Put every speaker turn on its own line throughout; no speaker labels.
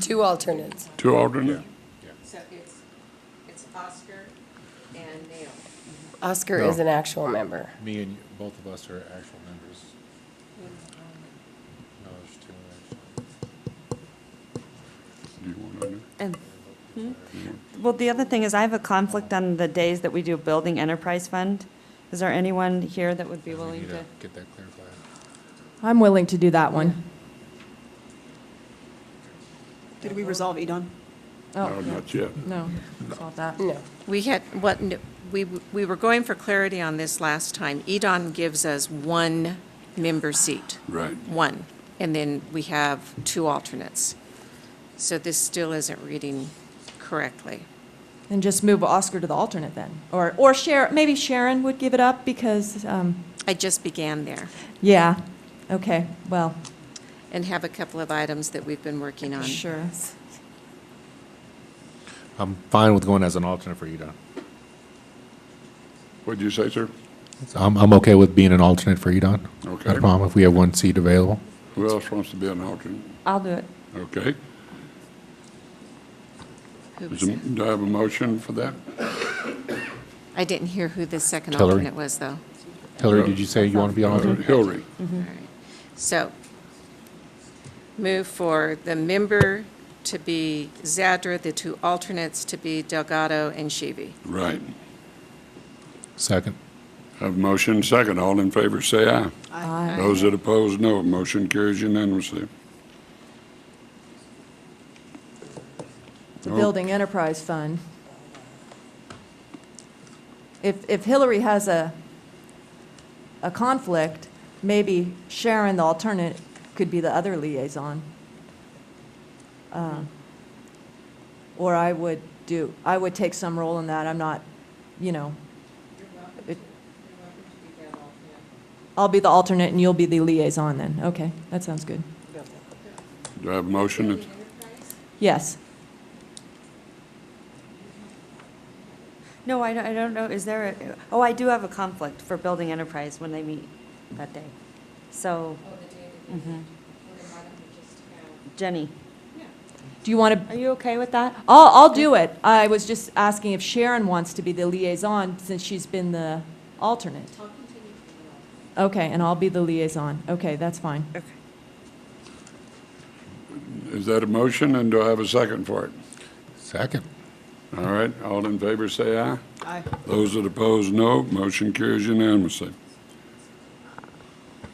Two alternates.
Two alternates?
So it's, it's Oscar and Neil.
Oscar
No.
is an actual member.
Me and you- both of us are actual members. No, there's two actually.
Do you want on
And, hmm? well, the other thing is I have a conflict on the days that we do Building Enterprise Fund. Is there anyone here that would be
We
willing
need
to?
Get that clarified.
I'm willing to do that one.
Did we resolve Edon?
there?
Oh,
No, not yet.
no, solve that.
No.
We had, what, we, we were going for clarity on this last time. Edon gives us one member seat.
Right.
One, and then we have two alternates. So this still isn't reading correctly.
And just move Oscar to the alternate then. Or, or Sharon, maybe Sharon would give it up because, um,
I just began there
yeah, okay, well,
and have a couple of items that we've been working on.
sure.
I'm fine with going as an alternate for EDON.
What'd you say, sir?
I'm, I'm okay with being an alternate for EDON. Not
Okay.
a problem if we have one seat available.
Who else wants to be an alternate?
I'll do it.
Okay.
Who was
Is a-
it?
Do I have a motion for that?
I didn't hear who the second
Hillary.
alternate was, though.
Hillary, did you say you want to be an alternate?
Uh, Hillary.
Mm-hmm. All right. So, move for the member to be Zadra, the two alternates to be Delgado and Shivi.
Mm-hmm.
Right.
Second.
Have a motion second. All in favor, say aye.
Aye.
Those that oppose, no. Motion carries unanimously.
The Building Enterprise Fund. If, if Hillary has a, a conflict, maybe Sharon, the alternate, could be the other liaison. Uh, Or I would do, I would take some role in that, I'm not, you know. it- I'll be the alternate and you'll be the liaison then, okay, that sounds good.
Do I have a motion?
Yes,
No, I don't, I don't know, is there, a- oh, I do have a conflict for Building Enterprise when they meet that day. So, mm-hmm. Jenny,
do you want to?
are you okay with that?
I'll, I'll do it. I was just asking if Sharon wants to be the liaison since she's been the alternate. Okay, and I'll be the liaison. Okay, that's fine.
Is that a motion, and do I have a second for it?
Second.
All right, all in favor, say aye.
Aye.
Those that oppose, no. Motion carries unanimously. Any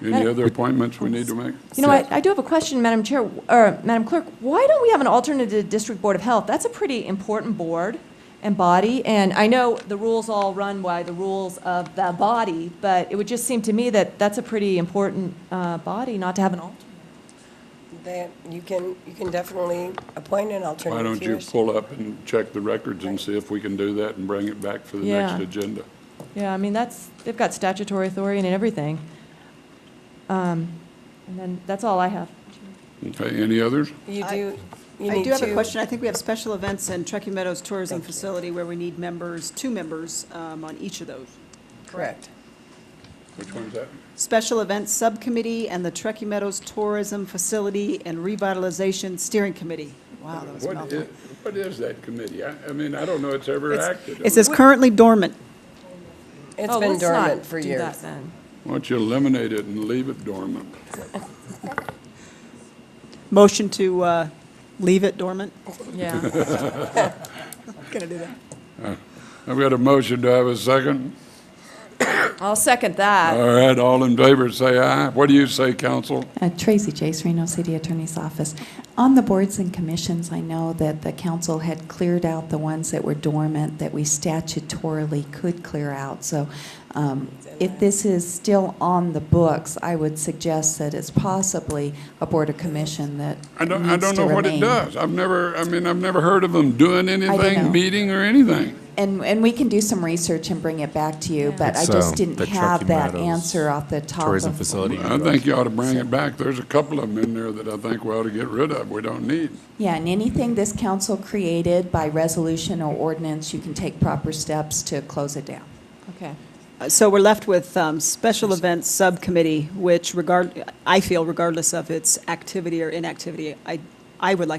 Madam-
other appointments we need to make?
You know, I, I do have a question, Madam Chair, or Madam Clerk. Why don't we have an alternate to District Board of Health? That's a pretty important board and body, and I know the rules all run by the rules of the body, but it would just seem to me that that's a pretty important, uh, body not to have an alternate.
That, you can, you can definitely appoint an alternate.
Why
if
don't you
wish.
pull up and check the records and see if we can do that and bring it back for the
Yeah.
next agenda?
Yeah, I mean, that's, they've got statutory authority and everything. Um, And then, that's all I have.
Okay, any others?
You
I-
do, you
I
need
do have
to-
a question. I think we have special events and Truckee Meadows Tourism Facility where we need members, two members um, on each of those.
Correct.
Which one's that?
Special Events Subcommittee and the Truckee Meadows Tourism Facility and Revitalization Steering Committee. Wow, that was a
What is,
mouthful.
what is that committee? I, I mean, I don't know it's ever
It's-
acted.
It says currently dormant.
It's
Oh,
been
let's not
dormant for
do
years.
that then.
Why don't you eliminate it and leave it dormant?
Motion to uh, leave it dormant.
Yeah.
Gonna do that.
I've got a motion, do I have a second?
I'll second that.
All right, all in favor, say aye. What do you say, council?
Uh, Tracy Jace, Reno City Attorney's Office. On the boards and commissions, I know that the council had cleared out the ones that were dormant that we statutorily could clear out. So um, if this is still on the books, I would suggest that it's possibly a board or commission that
I don't, I
needs
don't
to
know what it
remain.
does. I've never, I mean, I've never heard of them doing
know.
anything, meeting or anything.
And, and we can do some research and bring it back to you, but I
It's, um,
just didn't
the
have
Truckee
that
Meadows
answer off the top of.
Tourism facility.
I think you ought to bring it back. There's a couple of them in there that I think we ought to get rid of, we don't need.
Yeah, and anything this council created by resolution or ordinance, you can take proper steps to close it down.
Okay.
Uh, So we're left with um, Special Events Subcommittee, which regard, I feel regardless of its activity or inactivity, I I would like